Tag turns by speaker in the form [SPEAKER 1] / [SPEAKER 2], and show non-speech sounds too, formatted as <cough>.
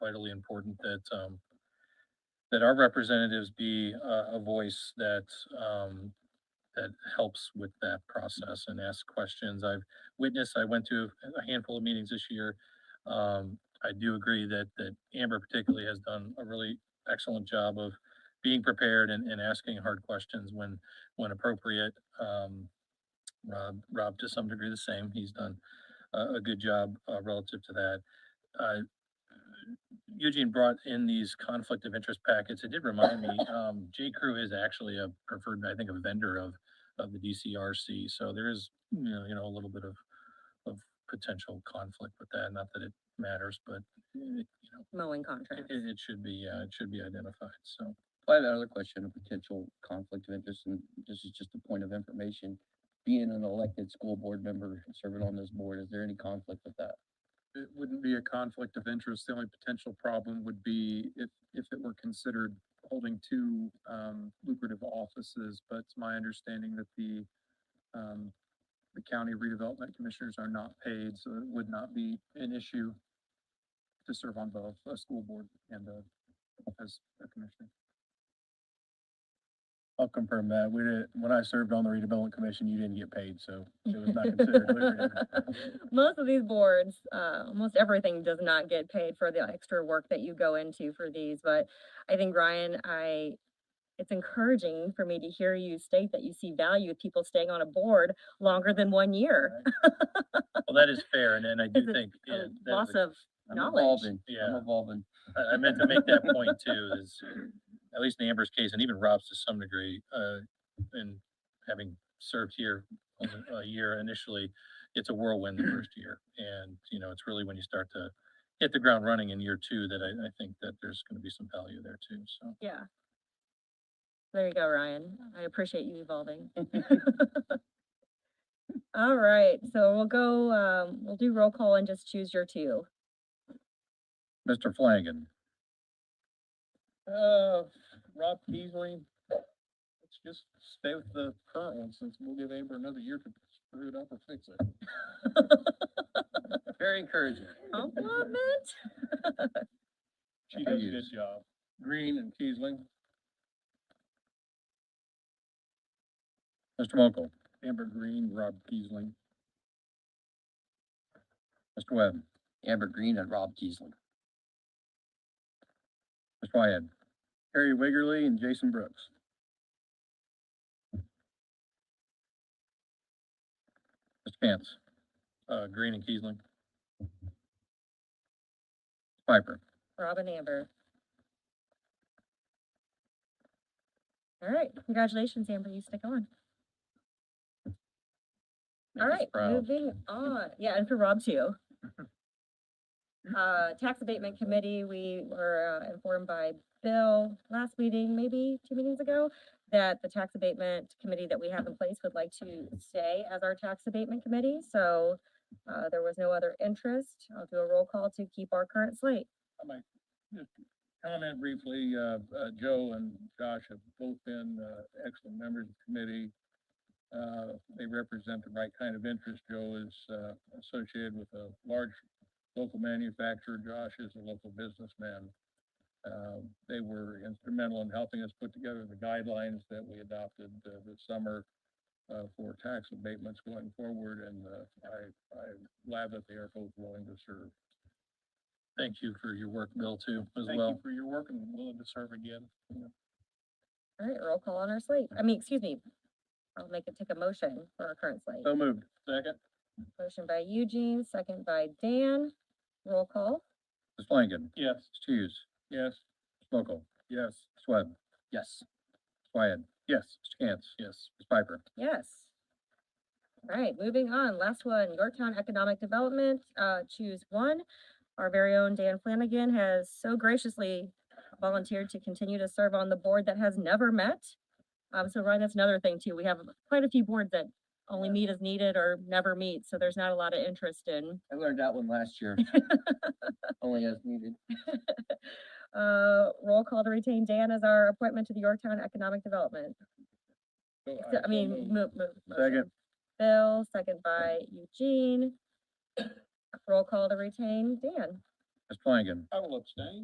[SPEAKER 1] vitally important that, um, that our representatives be a, a voice that, um, that helps with that process and ask questions. I've witnessed, I went to a handful of meetings this year. Um, I do agree that, that Amber particularly has done a really excellent job of being prepared and, and asking hard questions when, when appropriate. Um, Rob, Rob to some degree the same. He's done a, a good job uh, relative to that. Uh, Eugene brought in these conflict of interest packets. It did remind me, um, J Crew is actually a preferred, I think, a vendor of, of the DCRC. So there is, you know, you know, a little bit of, of potential conflict with that. Not that it matters, but it, you know,
[SPEAKER 2] mowing
[SPEAKER 1] it,
[SPEAKER 2] contract.
[SPEAKER 1] it should be, uh, it should be identified. So.
[SPEAKER 3] I have another question, a potential conflict of interest, and this is just a point of information. Being an elected school board member and serving on this board, is there any conflict with that?
[SPEAKER 4] it wouldn't be a conflict of interest. The only potential problem would be if, if it were considered holding two, um, lucrative offices, but it's my understanding that the, um, the county redevelopment commissioners are not paid, so it would not be an issue to serve on both a school board and a, as a commissioner.
[SPEAKER 5] I'll confirm that. We didn't, when I served on the redevelopment commission, you didn't get paid, so it
[SPEAKER 4] <laughs>
[SPEAKER 5] was not considered lucrative.
[SPEAKER 2] <laughs> Most of these boards, uh, almost everything does not get paid for the extra work that you go into for these, but I think Ryan, I, it's encouraging for me to hear you state that you see value of people staying on a board longer than one year.
[SPEAKER 1] Well, that is fair, and, and I do
[SPEAKER 2] It's a-
[SPEAKER 1] think,
[SPEAKER 2] a
[SPEAKER 1] yeah, that
[SPEAKER 2] Loss
[SPEAKER 1] was-
[SPEAKER 2] of
[SPEAKER 3] I'm
[SPEAKER 2] knowledge.
[SPEAKER 3] evolving, I'm
[SPEAKER 1] yeah,
[SPEAKER 3] evolving. <laughs>
[SPEAKER 1] I, I meant to make that point too,
[SPEAKER 2] <clears throat>
[SPEAKER 1] is, at least in Amber's case, and even Rob's to some degree, uh, and having served here only a year initially, it's a whirlwind the first year, and, you know, it's really when you start to hit the ground running in year two that I, I think that there's gonna be some value there too, so.
[SPEAKER 2] Yeah. There you go, Ryan. I appreciate you evolving. <laughs> All right, so we'll go, um, we'll do roll call and just choose your two.
[SPEAKER 5] Mr. Flanagan,
[SPEAKER 4] Uh, Rob Peasley, let's just stay with the current one since we'll give Amber another year to screw it up or fix it.
[SPEAKER 3] Very encouraging.
[SPEAKER 2] Compliment?
[SPEAKER 5] She does a good
[SPEAKER 4] job. Green and Kiesling.
[SPEAKER 5] Mr. Mokel,
[SPEAKER 4] Amber Green, Rob Kiesling.
[SPEAKER 5] Mr. Webb,
[SPEAKER 3] Amber Green and Rob Kiesling.
[SPEAKER 5] Mr. Wyatt, Harry Wiggerly, and Jason Brooks. Mr. Cantz,
[SPEAKER 1] Uh, Green and Kiesling,
[SPEAKER 5] Piper,
[SPEAKER 2] Robin Amber. All right, congratulations, Amber, you stick on. All
[SPEAKER 5] Amber's
[SPEAKER 2] right,
[SPEAKER 5] proud.
[SPEAKER 2] moving on, yeah, and for Rob too. Uh, Tax Abatement Committee, we were uh, informed by Bill last meeting, maybe two meetings ago, that the Tax Abatement Committee that we have in place would like to stay as our Tax Abatement Committee, so uh, there was no other interest. I'll do a roll call to keep our current slate.
[SPEAKER 4] Comment briefly, uh, uh, Joe and Josh have both been, uh, excellent members of the committee. Uh, they represent the right kind of interest. Joe is, uh, associated with a large local manufacturer. Josh is a local businessman. Um, they were instrumental in helping us put together the guidelines that we adopted, uh, this summer, uh, for tax abatements going forward, and, uh, I, I'm glad that they are both willing to serve.
[SPEAKER 1] thank you for your work, Bill, too, as
[SPEAKER 4] Thank you
[SPEAKER 1] well.
[SPEAKER 4] for your work and willing to serve again.
[SPEAKER 2] All right, roll call on our slate. I mean, excuse me. I'll make it take a motion for our current slate.
[SPEAKER 1] Oh.
[SPEAKER 5] so moved.
[SPEAKER 1] Second,
[SPEAKER 2] Motion by Eugene, second by Dan. Roll call.
[SPEAKER 5] Mr. Flanagan,
[SPEAKER 1] yes.
[SPEAKER 5] Mr. Hughes,
[SPEAKER 4] Yes.
[SPEAKER 5] Mr. Mokel,
[SPEAKER 4] Yes.
[SPEAKER 5] Mr. Webb, Mr.
[SPEAKER 3] Yes.
[SPEAKER 5] Wyatt,
[SPEAKER 4] Yes.
[SPEAKER 5] Mr. Cantz,
[SPEAKER 1] Yes.
[SPEAKER 5] Ms. Piper,
[SPEAKER 2] Yes. All right, moving on. Last one, Yorktown Economic Development, uh, choose one. Our very own Dan Flanagan has so graciously volunteered to continue to serve on the board that has never met. Um, so Ryan, that's another thing too. We have quite a few boards that only meet as needed or never meet, so there's not a lot of interest in
[SPEAKER 3] I learned that one
[SPEAKER 2] <laughs>
[SPEAKER 3] last year. Only as needed.
[SPEAKER 2] Uh, roll call to retain Dan as our appointment to the Yorktown Economic Development. So- I mean, mo- mo-
[SPEAKER 5] Second.
[SPEAKER 2] motion. Bill, second by Eugene. Roll call to retain Dan.
[SPEAKER 5] Mr. Flanagan,
[SPEAKER 4] I will abstain.